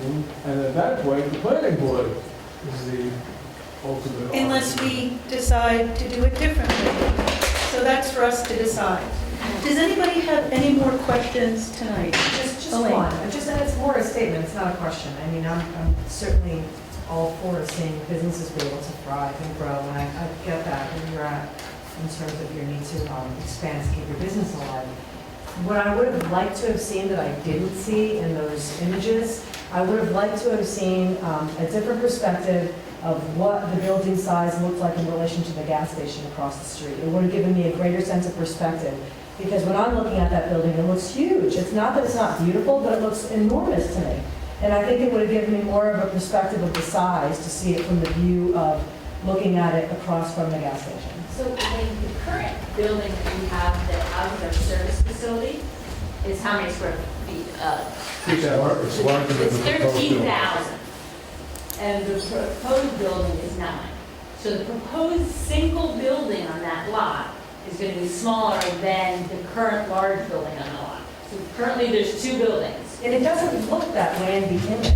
And at that point, the planning board is the ultimate. unless we decide to do it differently. So that's for us to decide. Does anybody have any more questions tonight? Just, just Elaine. one, just, and it's more a statement, it's not a question. I mean, I'm, I'm certainly all for seeing businesses be able to thrive and grow, and I, I get that, and you're at, in terms of your need to, um, expand, to keep your business alive. What I would have liked to have seen that I didn't see in those images, I would have liked to have seen, um, a different perspective of what the building size looked like in relation to the gas station across the street. It would have given me a greater sense of perspective. Because when I'm looking at that building, it looks huge. It's not that it's not beautiful, but it looks enormous to me. And I think it would have given me more of a perspective of the size to see it from the view of looking at it across from the gas station. So I mean, the current building that we have that houses our service facility is how many square feet? Uh, It's lar- it's larger than It's the proposed building. 13,000. And the proposed building is nine. So the proposed single building on that lot is going to be smaller than the current large building on the lot. So currently, there's two buildings. And it doesn't look that way in the image.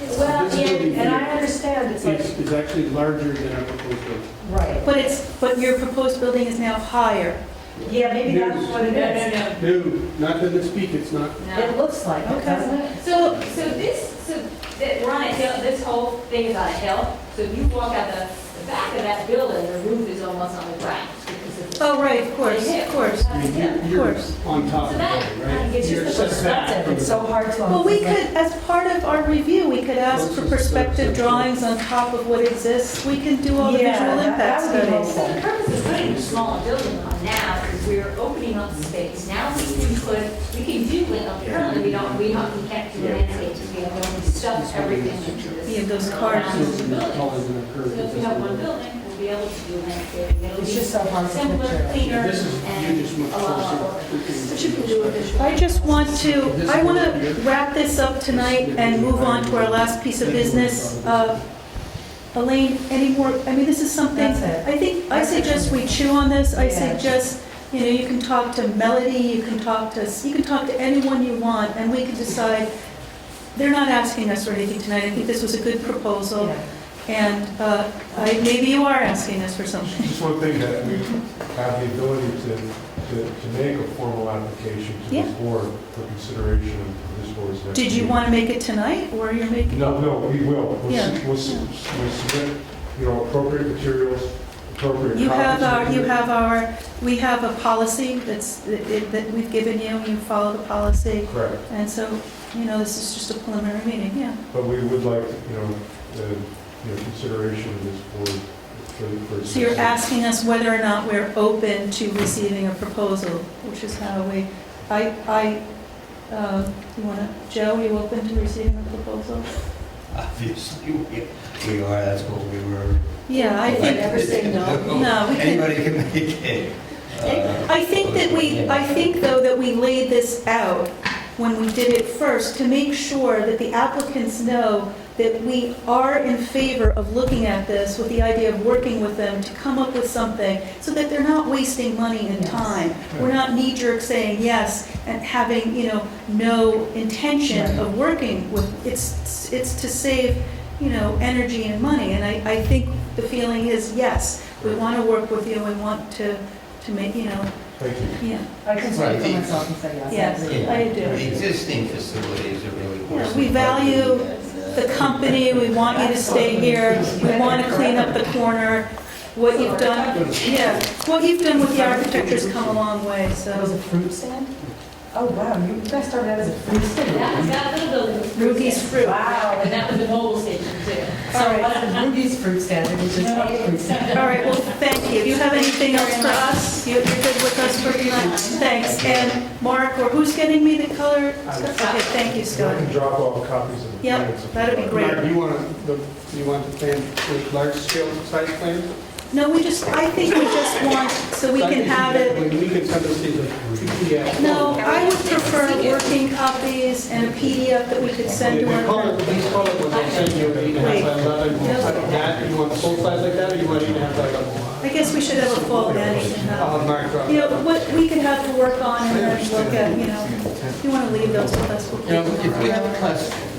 Well, This building and And I understand it's like, is, is actually larger than our proposed building. right. But it's, but your proposed building is now higher. Yeah, maybe that's what it is. no, no. No, not that it's peak, it's not. no. It looks like it, Okay. doesn't it? So, so this, so that we're on a hill, this whole thing is on a hill. So if you walk out the, the back of that building, the roof is almost on the ground because of the. Oh, right, of course, of course. I mean, Yeah, you're- of you're course. on top So of it, that kind right? of gives you You're the set back Perspective, from it's the- so hard to. Well, we could, as part of our review, we could ask for perspective drawings on top of what exists. We can do all the Yeah, visual that- impact that would be studies. helpful. So the purpose of putting the smaller building on now is we're opening up space. Now we can put, we can do it up currently, we don't, we don't, we can't do landscapes, we have only stuff everything into this. Yeah, those cars. around It's the taller building. than a curve. So if we have one building, we'll be able to do landscaping. It'll It's be just so hard to simpler, picture. cleaner, This is, you just and went a lot more. closer. I just want to, I want to wrap this up tonight and move on to our last piece of business. Uh, Elaine, any more, I mean, this is something, That's it. I think, I suggest we chew on this. I Yeah. suggest, you know, you can talk to Melody, you can talk to, you can talk to anyone you want, and we can decide. They're not asking us for anything tonight. I think this was a good proposal, Yeah. and uh, I- maybe you are asking us for something. Just one thing that we have the ability to, to, to make a formal application to Yeah. this board for consideration of this board's next. Did you meeting. want to make it tonight, or you're making? No, no, we will. We'll, Yeah. s- we'll, s- we'll submit, you know, appropriate materials, appropriate copies. You have of our, you it. have our, we have a policy that's, that that we've given you, you follow the policy, Correct, and so, you know, this is just a preliminary meeting, yeah. but we would like, you know, the, you know, consideration of this board for. for- So you're asking us whether or not we're open to receiving a proposal, which is how we, I, I, uh, you wanna, Joe, are you open to receiving a proposal? Obviously, we- we are, that's what we were. Yeah, I think. elected to do. No, we can, Anybody can make it. Uh, I think that we, I think though that we laid this out when we did it first to make sure that the applicants know that we are in favor of looking at this with the idea of working with them to come up with something so that they're not wasting money and Yes. time. We're not knee-jerk saying yes and having, you know, no intention of working with, it's, it's to save, you know, energy and money. And I, I think the feeling is, yes, we want to work with you, we want to, to make, you know, Thank you. yeah, I can speak for Right. myself and say yes. I Yes. agree. yeah, I do. The existing facilities are really worse. We than- value the company, we want you to stay here, we want to clean up the corner, what you've done, yeah, what you've done with the architecture's come a long way, That was a so. fruit stand? Oh, wow, you guys started out as a fruit stand? That was that little building. was- Ruby's fruit. Wow. And that was the mobile station too. So it wasn't Ruby's fruit stand, it was just a fruit stand. All right, well, thank you. Do you have anything else for us? You- You're good with us for tonight? Thanks. And Mark, or who's getting me the color? Okay, thank And I you, can Scott. drop off copies of the Yep, plans. if you that'd be like. great. Mark, you want the, you want the plan, the large scale site plan? No, we just, I think we just want, so we can have it. We can send this to the PDF. No, I would prefer working copies and a PDF that we could send to If you our. call it, please call it what I'm saying, you either have like eleven, like that, you want full size like that, or you want to have like a, I guess we should have a full edit and I'll have, mark up. you know, what we could have to work on and then look at, you know, if you want to leave those with us, we'll Now, keep if we have a them. question,